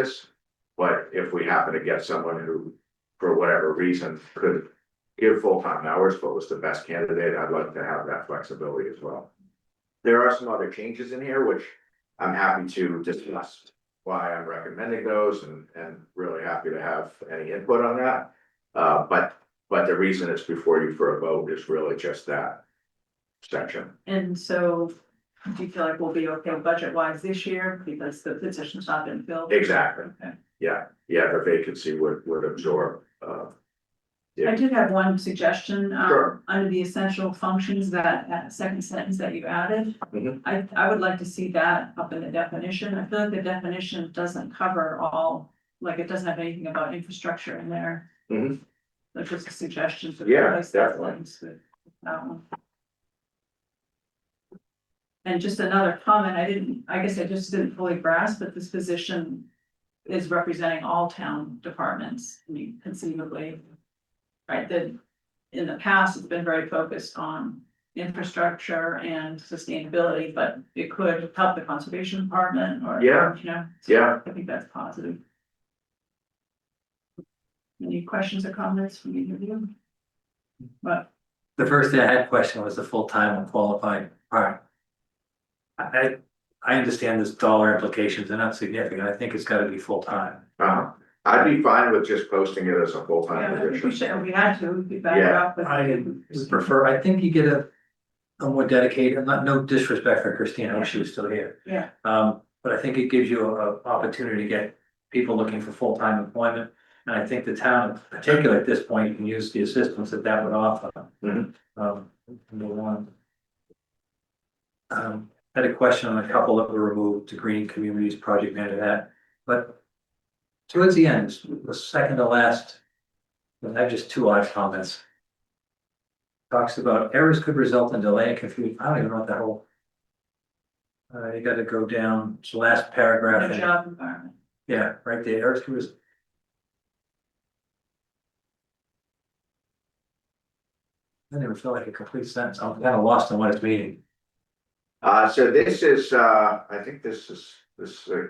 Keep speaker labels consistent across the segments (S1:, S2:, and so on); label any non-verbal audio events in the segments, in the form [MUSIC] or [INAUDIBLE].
S1: this. But if we happen to get someone who, for whatever reason, could give full-time hours, but was the best candidate, I'd like to have that flexibility as well. There are some other changes in here which I'm happy to discuss why I'm recommending those and, and really happy to have any input on that. Uh, but, but the reason it's before you for a vote is really just that section.
S2: And so do you feel like we'll be okay budget wise this year because the position's not been filled?
S1: Exactly.
S2: Okay.
S1: Yeah, yeah, the vacancy would, would absorb, uh,
S2: I did have one suggestion,
S1: Sure.
S2: um, under the essential functions that, that second sentence that you added.
S1: Mhm.
S2: I, I would like to see that up in the definition. I feel like the definition doesn't cover all, like it doesn't have anything about infrastructure in there.
S1: Mhm.
S2: That's just a suggestion. to
S1: Yeah,
S2: replace that
S1: definitely.
S2: sentence with that one. And just another comment, I didn't, I guess I just didn't fully grasp that this position is representing all town departments, I mean conceivably. Right, that in the past, it's been very focused on infrastructure and sustainability, but it could help the conservation department or.
S1: Yeah.
S2: You know. so
S1: Yeah.
S2: I think that's positive. Any questions or comments from either of you? But
S3: The first thing I had question was the full-time and qualified part. I, I, I understand this dollar implications, they're not significant, I think it's gotta be full-time.
S1: uh, I'd be fine with just posting it as a
S2: yeah,
S1: full-time
S2: I think we
S1: position.
S2: should, if we had to, we'd be better
S1: Yeah,
S2: off with.
S3: I would prefer, I think you get a, a more dedicated, and not, no disrespect for Christina, I wish she was still here.
S2: Yeah.
S3: Um, but I think it gives you a, a opportunity to get people looking for full-time employment. And I think the town, particularly at this point, can use the assistance that that would offer.
S1: Mhm.
S3: Um, number one. Um, had a question on a couple that were removed, the Green Communities Project Manager that, but. Towards the end, the second to last. I have just two odd comments. Talks about errors could result in delay and confusion, I don't even know what that whole. Uh, you gotta go down to last paragraph.
S2: The
S3: and-
S2: job environment.
S3: yeah, right there, Eric's was. I never felt like a complete sentence, I'm kind of lost on what it's meaning.
S1: Uh, so this is, uh, I think this is, this, uh,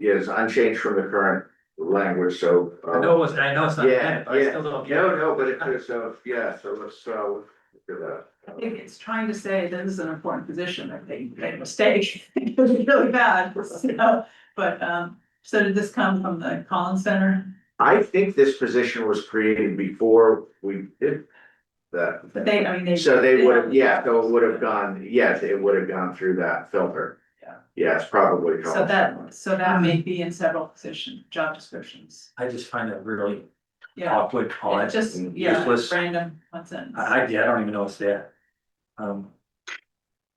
S1: is unchanged from the current language, so. uh,
S3: I know it was, I know it's not,
S1: Yeah,
S3: bad, but I still don't get
S1: No,
S3: it.
S1: no, but it is, so, yeah, so let's, uh, look at that.
S2: I think it's trying to say that this is an important position, that they made a mistake, [LAUGHS] it was really bad, [LAUGHS] so, but, um, so did this come from the Collins Center?
S1: I think this position was created before we did that.
S2: But they, I mean, they.
S1: So they would, have
S2: have-
S1: yeah, so it would have gone, yes, it would have gone through that filter.
S2: Yeah.
S1: Yeah, it's probably.
S2: So that, so that may be in several position, job descriptions,
S3: I just find that really
S2: yeah,
S3: awkward,
S2: It
S3: odd,
S2: just,
S1: Mm.
S2: yeah,
S3: Useless.
S2: random, one sentence.
S3: I, I, yeah, I don't even know what's there. Um.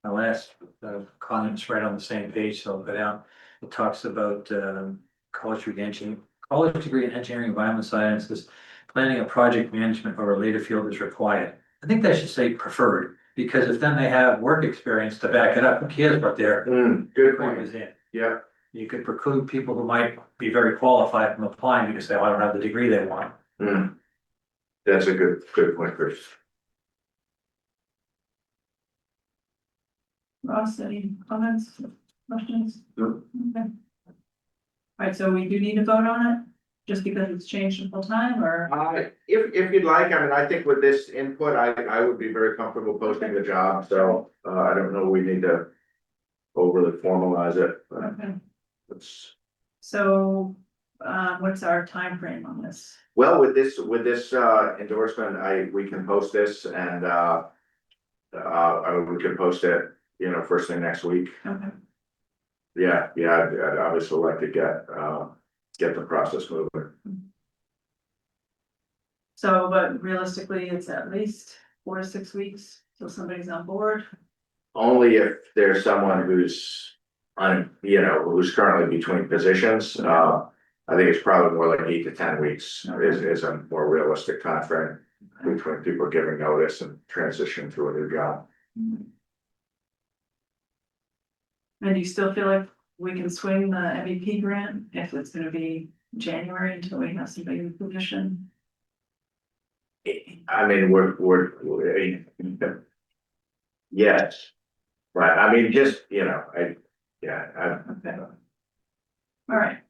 S3: My last uh, comment's right on the same page, so I'll go down, it talks about um college degree engineering, college degree in engineering, environmental sciences. Planning a project management or related field is required, I think that should say preferred, because if then they have work experience to back it up, who cares what their
S1: Hmm, good
S3: point
S1: point,
S3: is in?
S1: yeah,
S3: You could preclude people who might be very qualified from applying because they "Oh, I don't have the degree they want.
S1: hmm. That's a good, good point, Chris.
S2: Ross, any comments, questions?
S1: No.
S2: Okay. Alright, so we do need to vote on it, just because it's changed in full time, or,
S1: Uh, if, if you'd like, I mean, I think with this input, I, I would be very comfortable posting the job, so, uh, I don't know, we need to overly formalize it, but
S3: Uh,
S2: okay,
S1: it's,
S2: so, uh, what's our time frame on this?
S1: well, with this, with this, uh, endorsement, I, we can post this and, uh, uh, I- we can post it, you know, first thing next week.
S2: Okay,
S1: Yeah, yeah, I'd, I'd obviously like to get, uh, get the process moving.
S2: so, but realistically, it's at least four to six weeks, till somebody's on board,
S1: Only if there's someone who's on, you know, who's currently between positions, uh. I think it's probably more like eight to ten weeks is, is a more realistic timeframe between people giving notice and transition to a new job.
S2: And do you still feel like we can swing the MVP grant if it's gonna be January until we have somebody in the position?
S1: I mean, we're, we're, we're- Yes, right, I mean, just, you know, I, yeah, I,
S2: Okay, all right,